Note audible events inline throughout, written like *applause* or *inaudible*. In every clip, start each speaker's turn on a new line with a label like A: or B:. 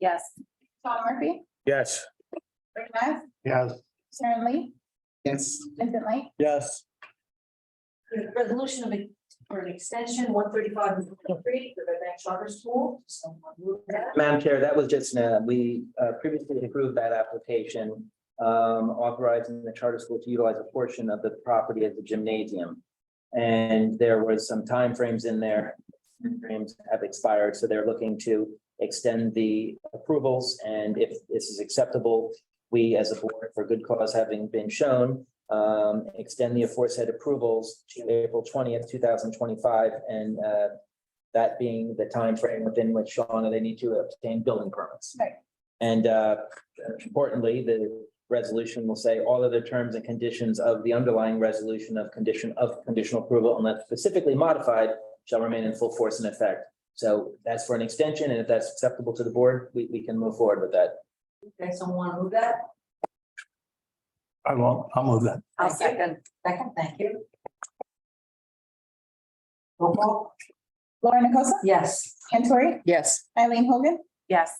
A: Yes. Sean Murphy,
B: Yes.
A: Rick Mack,
B: Yes.
A: Sharon Lee,
B: Yes.
A: Vincent Lake,
B: Yes.
C: Resolution of, ex- for an extension, one thirty-five and three, the Red Bank Charter School. Someone move that.
D: Madam Chair, that was just, uh, we uh, previously approved that application, um, authorizing the charter school to utilize a portion of the property as a gymnasium. And there was some timeframes in there, frames have expired, so they're looking to extend the approvals. And if this is acceptable, we as a board, for good cause having been shown, um, extend the aforesaid approvals to April twentieth, two thousand twenty-five, and uh, that being the time frame within which, Shauna, they need to obtain building permits.
A: Right.
D: And uh, importantly, the resolution will say all other terms and conditions of the underlying resolution of condition of conditional approval unless specifically modified shall remain in full force and effect. So that's for an extension, and if that's acceptable to the board, we, we can move forward with that.
C: Okay, someone move that.
B: I will, I'll move that.
C: I'll second. Second, thank you. Roll call.
A: Laura Nicosa,
C: Yes.
A: Tori,
E: Yes.
A: Eileen Hogan,
E: Yes.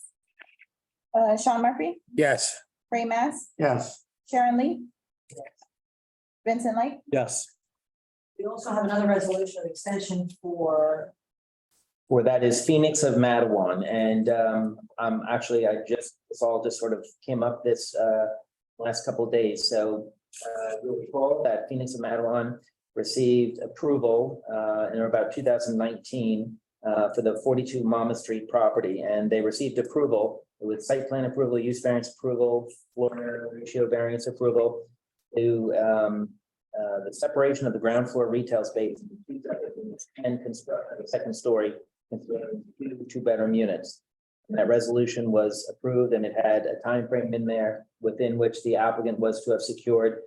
A: uh, Sean Murphy,
B: Yes.
A: Ray Mass,
B: Yes.
A: Sharon Lee. Vincent Lake,
B: Yes.
C: We also have another resolution of extension for,
D: Or that is Phoenix of Mattawan, and um, I'm actually, I just, this all just sort of came up this uh, last couple of days, so uh, you'll recall that Phoenix of Mattawan received approval uh, in about two thousand nineteen uh, for the forty-two Mama Street property, and they received approval with site plan approval, use variance approval, floor area ratio variance approval to um, uh, the separation of the ground floor retail space and construct a second story considering two two-bedroom units. And that resolution was approved and it had a time frame in there within which the applicant was to have secured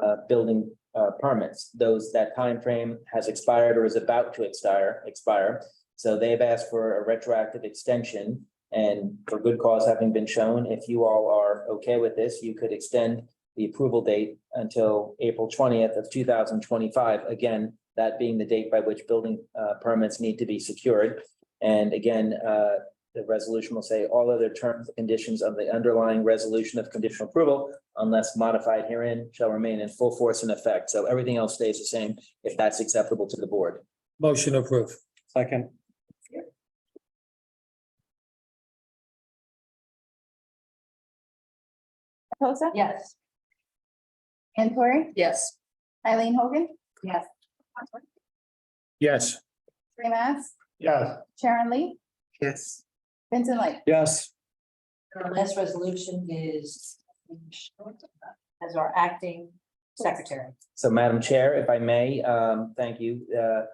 D: uh, building uh, permits. Those, that time frame has expired or is about to expire, expire. So they've asked for a retroactive extension and for good cause having been shown, if you all are okay with this, you could extend the approval date until April twentieth of two thousand twenty-five. Again, that being the date by which building uh, permits need to be secured. And again, uh, the resolution will say all other terms, and conditions of the underlying resolution of conditional approval, unless modified herein, shall remain in full force and effect. So everything else stays the same if that's acceptable to the board.
B: Motion approved. Second.
A: Nicosa,
C: yes.
A: Tori,
E: Yes.
A: Eileen Hogan. Yes.
B: Yes.
A: Ray Mass,
B: Yes.
A: Sharon Lee,
B: Yes.
A: Vincent Lake,
B: Yes.
C: And Our last resolution is as our acting secretary.
D: So Madam Chair, if I may, um, thank you. Uh,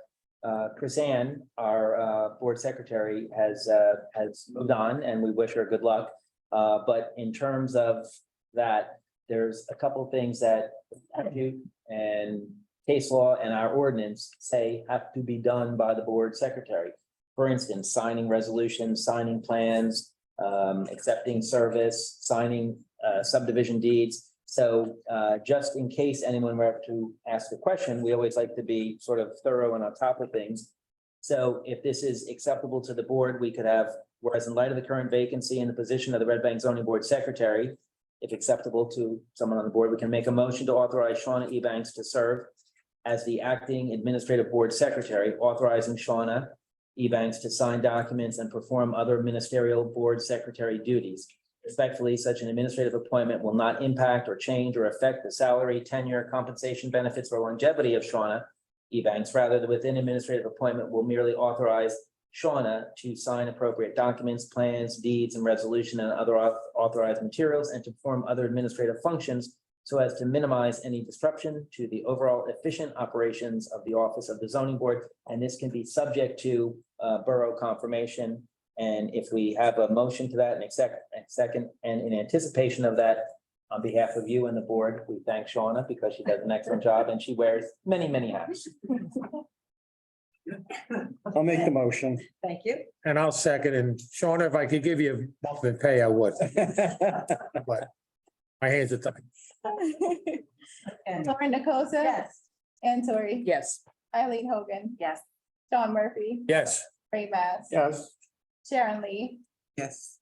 D: uh, Chris Ann, our, uh, board secretary has, uh, has moved on and we wish her good luck. Uh, but in terms of that, there's a couple things that statute and case law and our ordinance say have to be done by the board secretary. For instance, signing resolutions, signing plans, um, accepting service, signing, uh, subdivision deeds. So uh, just in case anyone were to ask a question, we always like to be sort of thorough and on top of things. So if this is acceptable to the board, we could have, whereas in light of the current vacancy in the position of the Red Bank zoning board secretary, if acceptable to someone on the board, we can make a motion to authorize Shauna Ebanks to serve as the acting administrative board secretary, authorizing Shauna Ebanks to sign documents and perform other ministerial board secretary duties. Respectfully, such an administrative appointment will not impact or change or affect the salary, tenure, compensation, benefits, or longevity of Shauna Ebanks. Rather, the within administrative appointment will merely authorize Shauna to sign appropriate documents, plans, deeds, and resolution and other au- authorized materials and to perform other administrative functions so as to minimize any disruption to the overall efficient operations of the office of the zoning board. And this can be subject to uh, borough confirmation and if we have a motion to that and accept, and second, and in anticipation of that, on behalf of you and the board, we thank Shauna because she does an excellent job and she wears many, many hats.
B: I'll make the motion.
C: Thank you.
F: And I'll second. And Sean, if I could give you a monthly pay, I
B: *laughs*
F: would. But my hands are tied.
C: And-
A: Laura Nicosa,
C: Yes.
A: Tori,
E: Yes.
A: Eileen Hogan,
E: Yes.
A: Sean Murphy,
F: Yes.
A: Ray Mass,
B: Yes.
A: Sharon Lee,
B: Yes.